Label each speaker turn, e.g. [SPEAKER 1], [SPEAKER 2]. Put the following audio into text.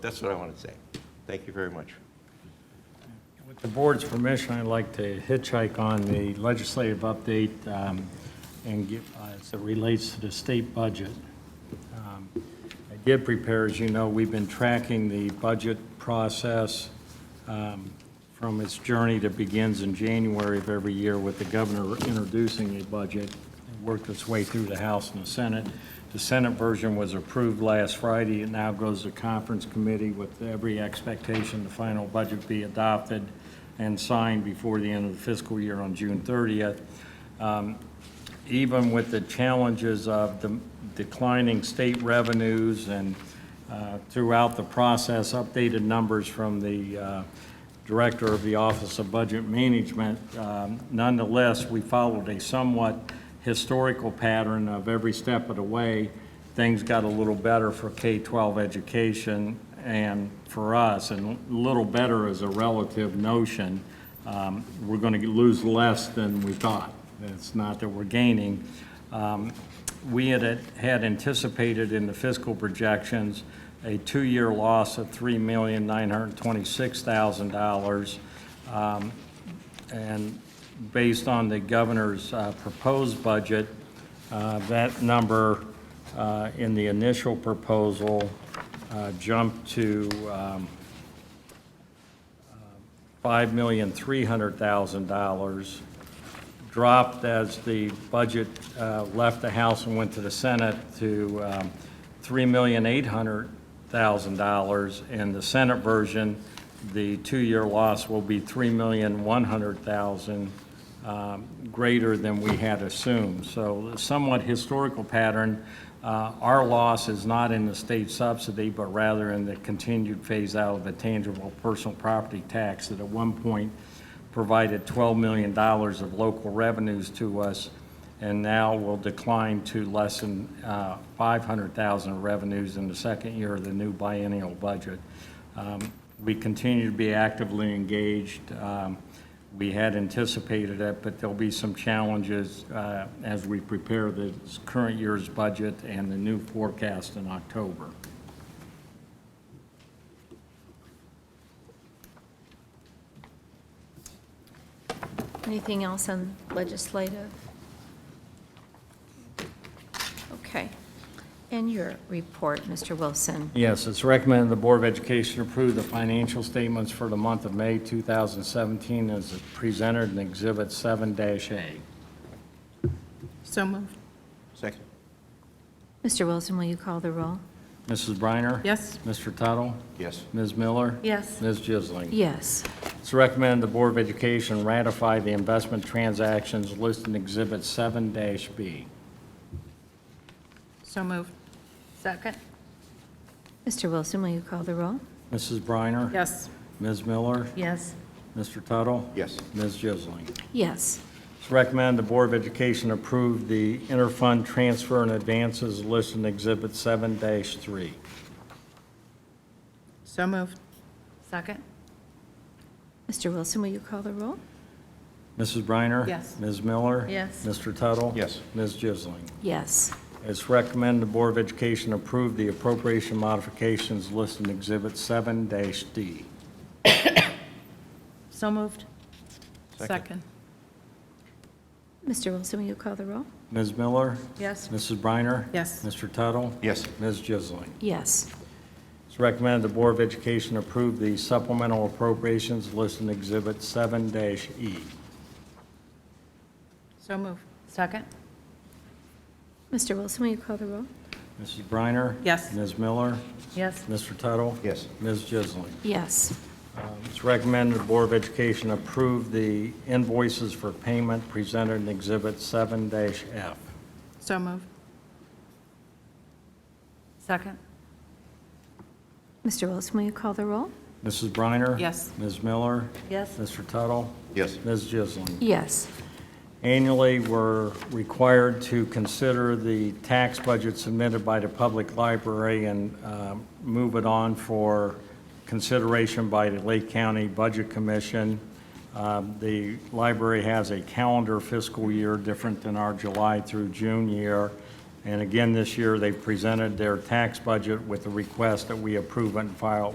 [SPEAKER 1] That's what I want to say. Thank you very much.
[SPEAKER 2] With the board's permission, I'd like to hitchhike on the legislative update um, and give, uh, as it relates to the state budget. Um, I did prepare, as you know, we've been tracking the budget process um, from its journey that begins in January of every year with the governor introducing a budget. It worked its way through the House and the Senate. The Senate version was approved last Friday. It now goes to conference committee with every expectation the final budget be adopted and signed before the end of the fiscal year on June 30th. Um, even with the challenges of the declining state revenues and uh, throughout the process, updated numbers from the uh, Director of the Office of Budget Management, um, nonetheless, we followed a somewhat historical pattern of every step of the way. Things got a little better for K-12 education and for us, and little better is a relative notion. Um, We're going to lose less than we thought. It's not that we're gaining. Um, We had, had anticipated in the fiscal projections a two-year loss of $3,926,000. Um, And based on the governor's uh, proposed budget, uh, that number uh, in the initial proposal uh, jumped to um, uh, $5,300,000, dropped as the budget uh, left the House and went to the Senate to um, $3,800,000. In the Senate version, the two-year loss will be $3,100,000 um, greater than we had assumed. So somewhat historical pattern. Uh, Our loss is not in the state subsidy, but rather in the continued phase-out of the tangible personal property tax that at one point provided $12 million of local revenues to us, and now will decline to less than uh, 500,000 revenues in the second year of the new biennial budget. Um, We continue to be actively engaged. Um, We had anticipated it, but there'll be some challenges uh, as we prepare this current year's budget and the new forecast in October.
[SPEAKER 3] Anything else on legislative? Okay. And your report, Mr. Wilson.
[SPEAKER 2] Yes, it's recommended the Board of Education approve the financial statements for the month of May 2017 as presented in Exhibit 7-A.
[SPEAKER 4] So moved.
[SPEAKER 1] Second?
[SPEAKER 3] Mr. Wilson, will you call the roll?
[SPEAKER 2] Mrs. Briner?
[SPEAKER 4] Yes.
[SPEAKER 2] Mr. Tuttle?
[SPEAKER 1] Yes.
[SPEAKER 2] Ms. Miller?
[SPEAKER 4] Yes.
[SPEAKER 2] Ms. Jisling?
[SPEAKER 3] Yes.
[SPEAKER 2] It's recommended the Board of Education ratify the investment transactions listed in Exhibit 7-B.
[SPEAKER 4] So moved. Second.
[SPEAKER 3] Mr. Wilson, will you call the roll?
[SPEAKER 2] Mrs. Briner?
[SPEAKER 4] Yes.
[SPEAKER 2] Ms. Miller?
[SPEAKER 4] Yes.
[SPEAKER 2] Mr. Tuttle?
[SPEAKER 1] Yes.
[SPEAKER 2] Ms. Jisling?
[SPEAKER 3] Yes.
[SPEAKER 2] It's recommended the Board of Education approve the interfund transfer and advances listed in Exhibit 7-3.
[SPEAKER 4] So moved. Second.
[SPEAKER 3] Mr. Wilson, will you call the roll?
[SPEAKER 2] Mrs. Briner?
[SPEAKER 4] Yes.
[SPEAKER 2] Ms. Miller?
[SPEAKER 4] Yes.
[SPEAKER 2] Mr. Tuttle?
[SPEAKER 1] Yes.
[SPEAKER 2] Ms. Jisling?
[SPEAKER 3] Yes.
[SPEAKER 2] It's recommended the Board of Education approve the appropriation modifications listed in Exhibit 7-D.
[SPEAKER 4] So moved.
[SPEAKER 1] Second.
[SPEAKER 3] Mr. Wilson, will you call the roll?
[SPEAKER 2] Ms. Miller?
[SPEAKER 4] Yes.
[SPEAKER 2] Mrs. Briner?
[SPEAKER 4] Yes.
[SPEAKER 2] Mr. Tuttle?
[SPEAKER 1] Yes.
[SPEAKER 2] Ms. Jisling?
[SPEAKER 3] Yes.
[SPEAKER 2] It's recommended the Board of Education approve the supplemental appropriations listed in Exhibit E. 7-E.
[SPEAKER 4] So moved. Second.
[SPEAKER 3] Mr. Wilson, will you call the roll?
[SPEAKER 2] Mrs. Briner?
[SPEAKER 4] Yes.
[SPEAKER 2] Ms. Miller?
[SPEAKER 4] Yes.
[SPEAKER 2] Mr. Tuttle?
[SPEAKER 1] Yes.
[SPEAKER 2] Ms. Jisling?
[SPEAKER 3] Yes.
[SPEAKER 2] It's recommended the Board of Education approve the invoices for payment presented in Exhibit 7-F.
[SPEAKER 4] So moved. Second.
[SPEAKER 3] Mr. Wilson, will you call the roll?
[SPEAKER 2] Mrs. Briner?
[SPEAKER 4] Yes.
[SPEAKER 2] Ms. Miller?
[SPEAKER 4] Yes.
[SPEAKER 2] Mr. Tuttle?
[SPEAKER 1] Yes.
[SPEAKER 2] Ms. Jisling?
[SPEAKER 3] Yes.
[SPEAKER 2] Annually, we're required to consider the tax budget submitted by the public library and um, move it on for consideration by the Lake County Budget Commission. Um, The library has a calendar fiscal year different than our July through June year. And again, this year, they presented their tax budget with the request that we approve and file